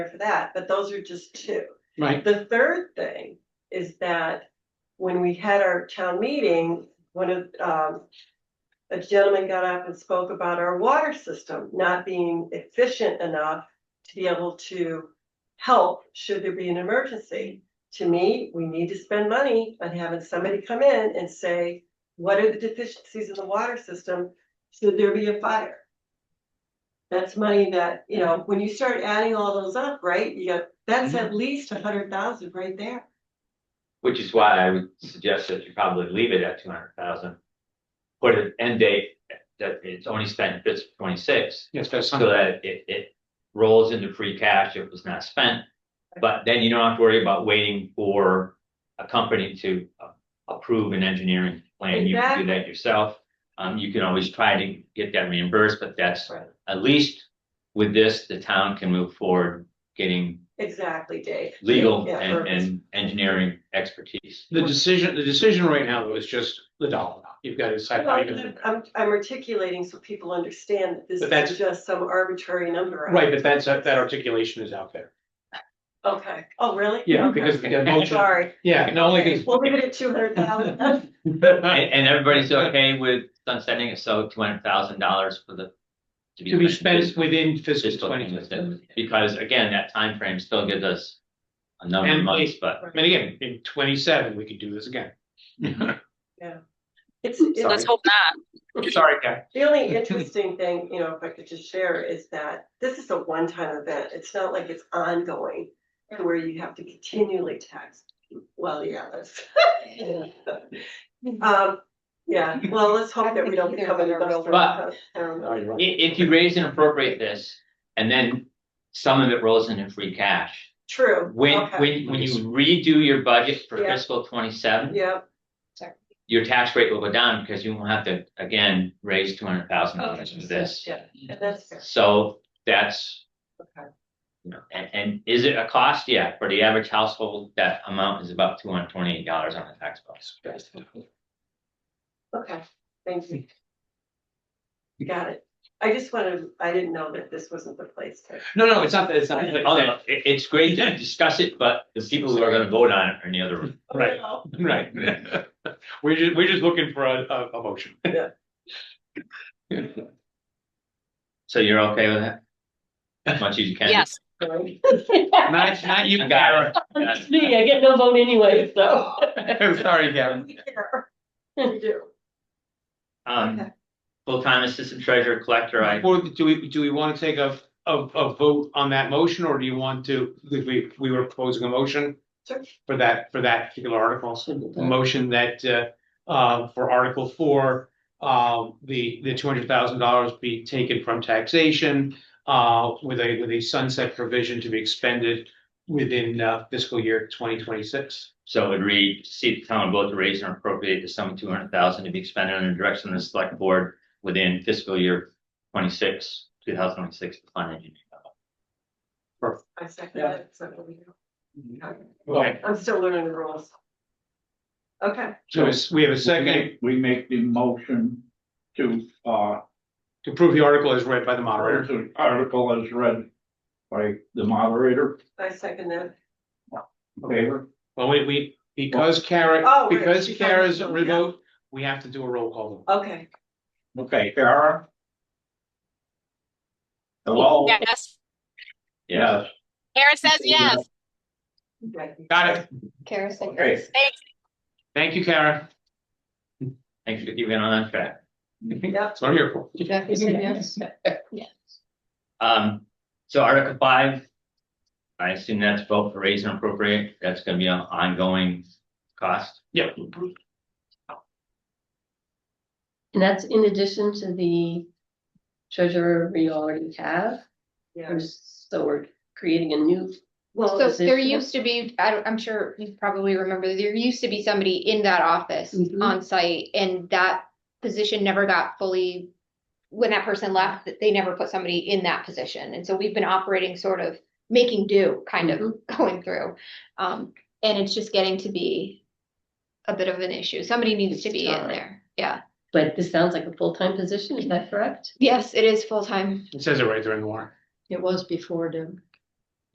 for that, but those are just two. Right, The third thing is that when we had our town meeting, one of, um. A gentleman got up and spoke about our water system not being efficient enough to be able to. Help should there be an emergency. To me, we need to spend money on having somebody come in and say, what are the deficiencies in the water system? Should there be a fire? That's money that, you know, when you start adding all those up, right, you got, that's Mm-hmm. at least a hundred thousand right there. Which is why I would suggest that you probably leave it at two hundred thousand. Put an end date that it's only spent this twenty six, yes, that's so something, that it it rolls into free cash if it's not spent. But then you don't have to worry about waiting for a company to uh, approve an engineering plan, you can do that yourself. Um, you can always try to get that reimbursed, but that's Right. at least with this, the town can move forward getting Exactly, Dave. legal Yeah, and or- and engineering expertise. the decision, the decision right now though is just the dollar, amount. you've got to decide how Well, you're gonna. I'm, I'm articulating so people understand that this But that's- is just some arbitrary number. Right, but that's, uh, that articulation is out there, Okay, oh, really? yeah, Okay. because the motion, Sorry. yeah, no, only because. We'll leave it at two hundred thousand. And, and everybody's okay with sunsetting it, so two hundred thousand dollars for the. To be in spent within fiscal Fiscal twenty. twenty, because again, that time frame still gives us a number of And months, but And again, in twenty-seven, we could do this again. It's, Sorry. it's Let's hope not. Sorry, Ken. The only interesting thing, you know, if I could just share is that this is a one-time event. It's not like it's ongoing. to Where you have to continually tax, well, yeah, that's. Um, yeah, well, let's hope that we don't become an industrial. But- town. No, you're i- right. if you raise and appropriate this, and then some of it rolls into free cash. True. When, okay. when, when you redo your budget for Yeah. fiscal twenty-seven, Yeah, your tax rate will go down, because you won't have to, again, raise two hundred thousand dollars for this. yeah, and that's fair. So that's. Okay. You know, and, and is it a cost? Yeah, for the average household, that amount is about two hundred twenty-eight dollars on the tax bill. Okay, thank you. Got it. I just wanted, I didn't know that this wasn't the place to. No, no, it's not, that. it's not. Oh, no, it, it's great to discuss it, but the people who are gonna vote on it are in the other room. Right. Right. We're just, we're just looking for a, a, a motion. Yeah. So you're okay with that? As much as you can. Yes. Not, not you, Karen. That's- Me, I get no vote anyway, so. Sorry, Karen. We care. We do. Okay. Um, full-time assistant treasurer collector, I, Or do we, do we want to take a, a, a vote on that motion, or do you want to, if we, we were proposing a motion Sure. for that, for that particular article? A motion that, uh, uh, for Article Four, um, the, the two hundred thousand dollars be taken from taxation, uh, with a, with a sunset provision to be expended within uh, fiscal year twenty twenty-six. so it would read, see the town vote to raise and appropriate the sum of two hundred thousand to be expended on the direction of the select board within fiscal year twenty-six, two thousand twenty-six, the fund engineer. I second that. so what we do. Okay. Okay, I'm still learning the rules. Okay, so it's- we have a We second make- We make the motion to, uh, to approve the article as read by the moderator. to article as read by the moderator. I second that. Favor? Well, we, we, because Kara, Oh, right, because she's on the Kara's phone, yeah. remote, we have to do a roll call. vote. Okay, Okay, Kara? Hello? Yes. Yeah, Karen says yes. okay. Got it. Kara said Okay, Thanks. Thank you, Kara. thanks for keeping on track. Yep, That's what I'm here for. Jackie said yes. Um, so Article five. I assume that's vote for raise and appropriate, that's gonna be an ongoing cost. Yep. And that's in addition to the treasurer we already have, yeah. or so we're creating a new. Well, So there position. used to be, I don't, I'm sure you probably remember, there used to be somebody in that office Mhm. on site and that position never got fully. When that person left, that they never put somebody in that position. And so we've been operating sort of making do, kind of going through. Um, and it's just getting to be a bit of an issue. Somebody needs It's to be in time. there. Yeah. But this sounds like a full-time position, is that correct? Yes, it is full time. It says it right there in the warrant. It was before, Deb.